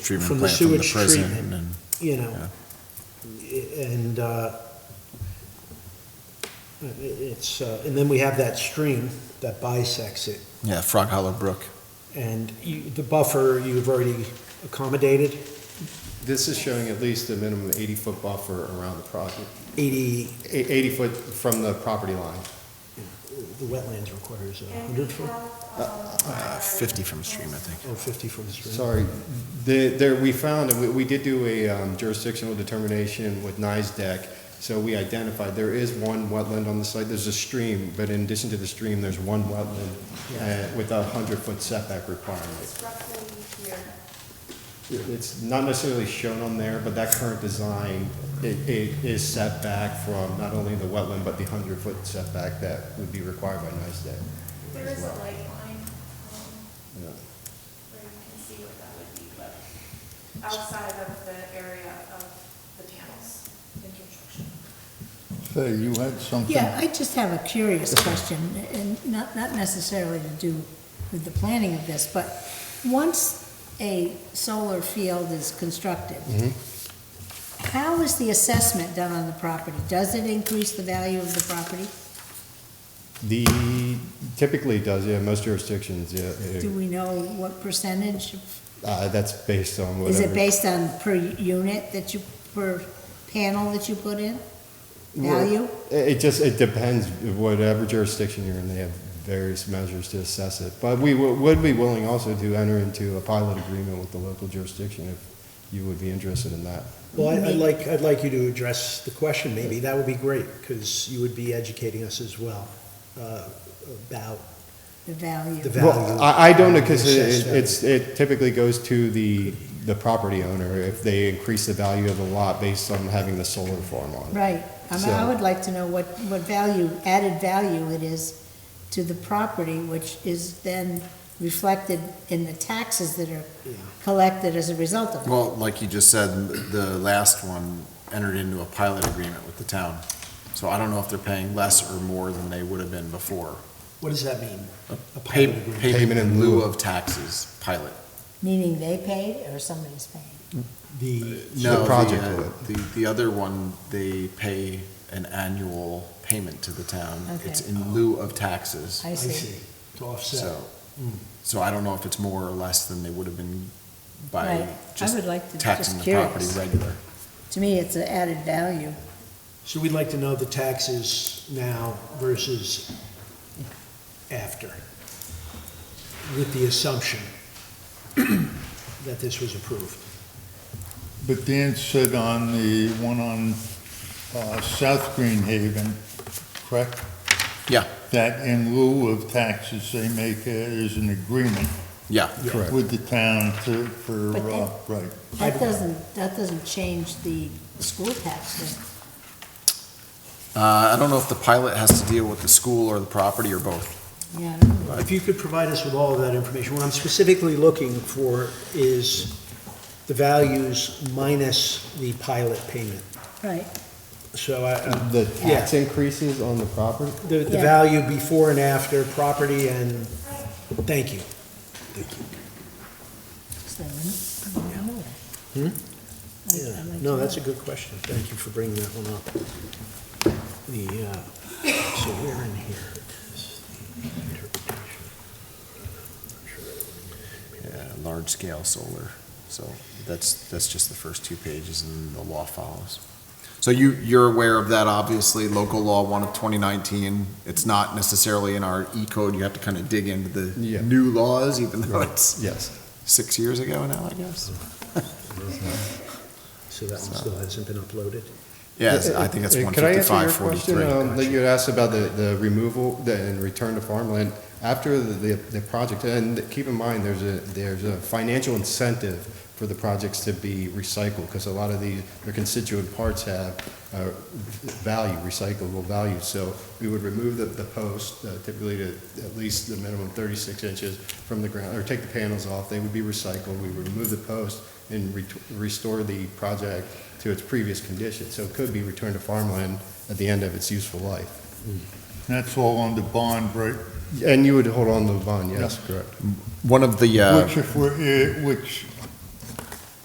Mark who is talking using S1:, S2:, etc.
S1: treatment
S2: From the
S1: plant from the
S2: sewage
S1: prison
S2: treatment.
S1: and,
S2: you know, and, uh, it- it's, uh, and then we have that stream that bisects it,
S1: yeah, Frog Hollow Brook.
S2: and you, the buffer, you've already accommodated
S3: This is showing at least a minimum 80-foot buffer around the project,
S2: eighty,
S3: eh, 80 foot from the property line.
S2: the wetlands requires a
S4: And we
S2: hundred foot
S4: have,
S1: Uh,
S4: um,
S1: Fifty from the stream, I think.
S2: or fifty from the stream.
S3: Sorry, the- there, we found, we- we did do a um, jurisdictional determination with NISDEC, so we identified, there is one wetland on the site, there's a stream, but in addition to the stream, there's one wetland uh, with a 100-foot setback requirement.
S4: It's roughly here.
S3: It's not necessarily shown on there, but that current design, it it is set back from not only the wetland, but the 100-foot setback that would be required by NISDEC.
S4: There is a
S3: well.
S4: light line um,
S3: Yeah.
S4: where you can see what that would be, but outside of the area of the panels in construction.
S5: Fay, you had something?
S6: Yeah, I just have a curious question, and not, not necessarily to do with the planning of this, but once a solar field is constructed, how is the assessment done on the property? Does it increase the value of the property?
S3: The, typically does, yeah, most jurisdictions, yeah.
S6: Do
S3: it-
S6: we know what percentage?
S3: uh, That's based on
S6: Is
S3: whatever.
S6: it based on per unit that you, per panel that you put in?
S3: Well,
S6: Value?
S3: It it just, it depends, whatever jurisdiction you're in, they have various measures to assess it. But we wo- would be willing also to enter into a pilot agreement with the local jurisdiction if you would be interested in that.
S2: Well, I- I'd like, I'd like you to address the question, maybe, that would be great, because you would be educating us as well, uh, about
S6: The value?
S2: the value.
S3: Well, I, I don't know,
S2: of
S3: because
S2: the assessed
S3: it,
S2: value.
S3: it's, it typically goes to the, the property owner if they increase the value of the lot based on having the solar farm on it.
S6: Right, I mean, I
S3: So-
S6: would like to know what, what value, added value it is to the property, which is then reflected in the taxes that are
S2: Yeah.
S6: collected as a result of it.
S1: Well, like you just said, the last one entered into a pilot agreement with the town. So I don't know if they're paying less or more than they would have been before.
S2: What does that mean? A
S1: Pay-
S2: pilot agreement?
S1: Payment in lieu of taxes, pilot.
S6: Meaning they paid or somebody's paying?
S2: The,
S1: No, the,
S3: project
S1: uh,
S3: would.
S1: The, the other one, they pay an annual payment to the town.
S6: Okay.
S1: Um, It's in lieu of taxes,
S6: I
S2: I
S6: see.
S2: see, to offset.
S1: so.
S2: Mm.
S1: So I don't know if it's more or less than they would have been
S6: Right.
S1: by
S6: I
S1: just
S6: would like to-
S1: taxing
S6: just
S1: the property
S6: curious.
S1: regular.
S6: To me, it's an added value.
S2: So we'd like to know the taxes now versus after, with the assumption that this was approved.
S5: But Dan said on the one on uh, South Green Haven, correct?
S1: Yeah.
S5: That in lieu of taxes, they make, a- is an agreement
S1: Yeah,
S3: Correct.
S5: with the town to, for,
S6: But
S5: uh,
S6: that-
S5: right.
S6: That doesn't, that doesn't change the school tax.
S1: Uh, I don't know if the pilot has to deal with the school or the property or both.
S6: though. Yeah, I don't know.
S2: If you could provide us with all of that information, what I'm specifically looking for is the values minus the pilot payment.
S6: right.
S2: So I,
S3: The
S2: Yeah.
S3: tax increases on the property?
S2: the, the
S6: Yeah.
S2: value before and after, property and, thank you.
S6: So, I don't know. I- I'd
S2: Yeah,
S6: like to
S2: Hmm? no, that's a
S6: know.
S2: good question. Thank you for bringing that one up. The, uh, so we're in here.
S1: Yeah, large scale solar. So that's, that's just the first two pages and the law follows. So you, you're aware of that, obviously, local law one of 2019. It's not necessarily in our E code. You have to kind of dig into
S3: Yeah.
S1: the new laws, even though it's
S3: Yes.
S1: six years ago now, I guess.
S3: Uh,
S2: So that one still hasn't been uploaded?
S1: Yeah, it's- I think that's
S3: Uh, could I answer your
S1: 155,
S3: question, um, That you had asked about the, the removal the- and return to farmland. After the, the the project, and keep in mind, there's a, there's a financial incentive for the projects to be recycled, because a lot of these, their constituent parts have uh, value, recyclable value. So we would remove the, the post, uh, typically to at least the minimum 36 inches from the ground, or take the panels off, they would be recycled. We would remove the post and ret- restore the project to its previous condition. So it could be returned to farmland at the end of its useful life.
S5: That's all on the bond, right?
S3: And you would hold on to the bond, yes, correct.
S1: One of the, uh,
S5: Which if we're, eh, which